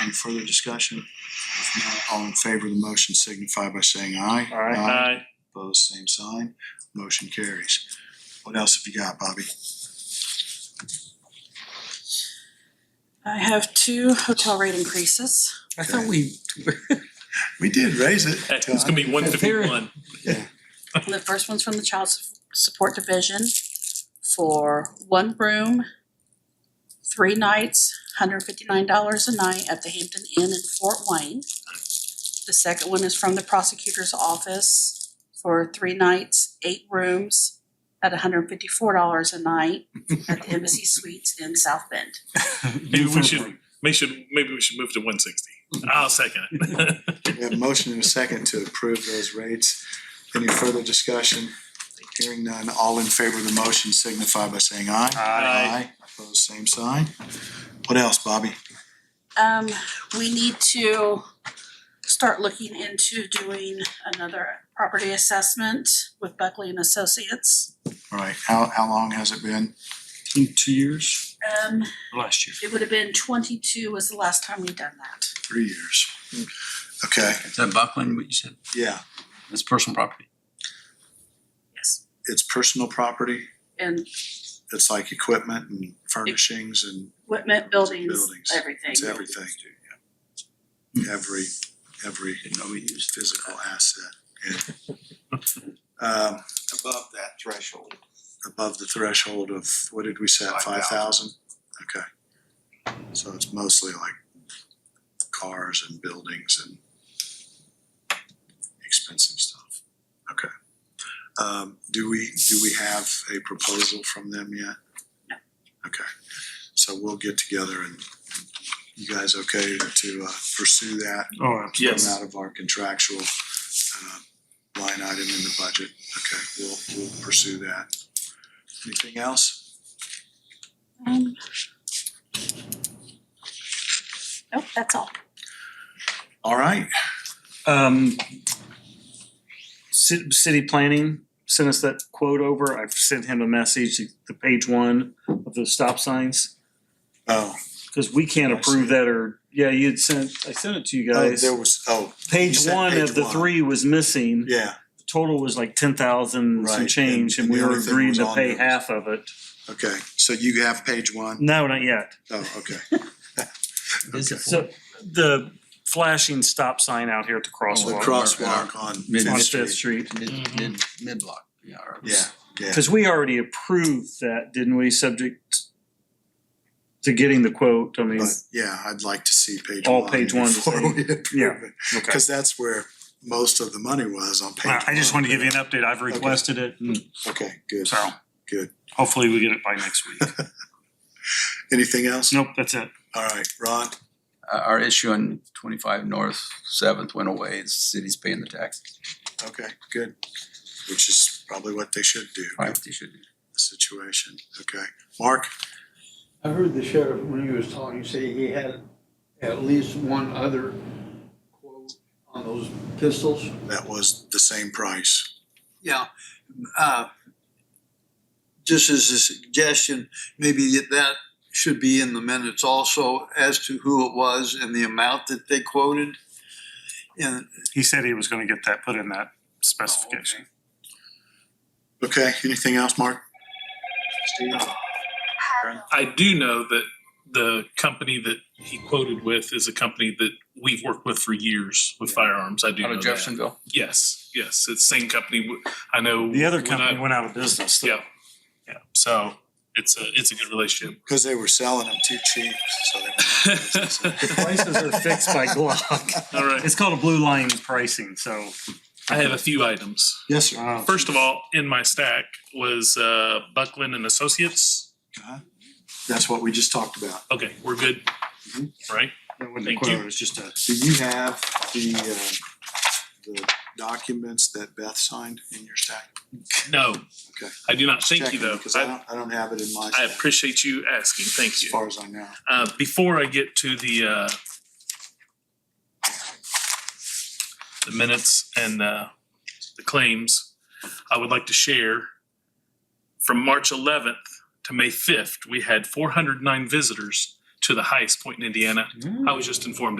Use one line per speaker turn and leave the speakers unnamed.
Any further discussion? If not, all in favor of the motion signify by saying aye.
Aye.
Opposed, same sign. Motion carries. What else have you got, Bobby?
I have two hotel rate increases.
I thought we,
We did raise it.
Hey, It's gonna be one fifty-one.
The first one's from the Child Su- Support Division for one room, three nights, hundred fifty-nine dollars a night at the Hampton Inn in Fort Wayne. The second one is from the Prosecutor's Office for three nights, eight rooms, at hundred fifty-four dollars a night at the Embassy Suites in South Bend.
Maybe we should, maybe should, maybe we should move to one sixty. I'll second it.
We have a motion and a second to approve those rates. Any further discussion? Hearing none, all in favor of the motion signify by saying aye.
Aye.
Opposed, same sign. What else, Bobby?
Um, we need to start looking into doing another property assessment with Buckley and Associates.
All right, how, how long has it been?
two years,
Um,
last year.
it would have been twenty-two was the last time we done that.
Three years. Okay,
Is that Buckland, what you said?
yeah,
That's personal property.
Yes.
it's personal property.
And
It's like equipment and furnishings and
equipment, buildings,
Buildings.
everything.
it's everything. Yeah. Every, every
Didn't know we used.
physical asset. Um,
above that threshold.
above the threshold of, what did we set, five
5,000?
thousand? Okay. So it's mostly like cars and buildings and expensive stuff. Okay. Um, do we, do we have a proposal from them yet?
No.
Okay, so we'll get together and you guys okay to uh, pursue that?
Oh, absolutely.
come out of our contractual uh, line item in the budget. Okay, we'll, we'll pursue that. Anything else?
Um, Nope, that's all.
All right,
Um, ci- city planning sent us that quote over. I've sent him a message, the page one of the stop signs.
oh,
Cause we can't
I see.
approve that or, yeah, you had sent, I sent it to you
oh,
guys.
there was, oh, you
Page
sent
one
page
of the
one.
three was missing.
yeah,
Total was like ten thousand
Right,
some
and-
change and
and
we
the
were
only thing
agreeing
was
to
on
pay
there.
half of it.
okay, so you have page one?
No, not yet.
Oh, okay,
Is it
So the flashing stop sign out here at the
so
crosswalk
crosswalk on
Mid-
on
Fifth
Fifth Street.
Street.
mm-hmm.
Mid, mid, mid-block, yeah. or-
Yeah, yeah,
Cause we already approved that, didn't we, subject to getting the quote, I mean,
but yeah, I'd like to see page one.
All page one is-
Before we approve it,
okay.
because that's where most of the money was on page one.
I I just wanted to give you an update. I've requested it and
Okay, good,
so
good.
hopefully we get it by next week.
Anything else?
Nope, that's it.
All right, Ron,
Uh, our issue on twenty-five North Seventh went away. The city's paying the taxes.
okay, good, which is probably what they should do.
Right, they should do.
situation, okay? Mark?
I heard the sheriff, when he was talking, say he had at least one other quote on those pistols.
That was the same price.
Yeah, uh, just as a suggestion, maybe that should be in the minutes also as to who it was and the amount that they quoted. And
He said he was gonna get that, put in that specification.
Okay, anything else, Mark? Steve?
uh,
I do know that the company that he quoted with is a company that we've worked with for years with firearms. I do
Out
know
of
that.
Jeffersonville?
Yes, yes, it's the same company. I know.
The other
when
company
I-
went out of business.
Yeah, yeah. So it's a, it's a good relationship.
Because they were selling them too cheap, so they went out of business.
the prices are fixed by Glock.
All right.
It's called a blue line pricing, so.
I have a few items.
Yes, sir.
uh,
First of all, in my stack was uh, Buckland and Associates.
Uh-huh. That's what we just talked about.
Okay, we're good,
Mhm.
right?
That wasn't a
Thank
quote,
you.
it was just a,
Do you have the, uh, the documents that Beth signed in your stack?
No,
Okay.
I do not. Thank you though.
Because I
I,
don't, I don't have it in my
I
stack,
appreciate you asking. Thank
as
you.
far as I know.
Uh, before I get to the uh, the minutes and uh, the claims, I would like to share from March 11th to May 5th, we had 409 visitors to the highest point in Indiana. I was just informed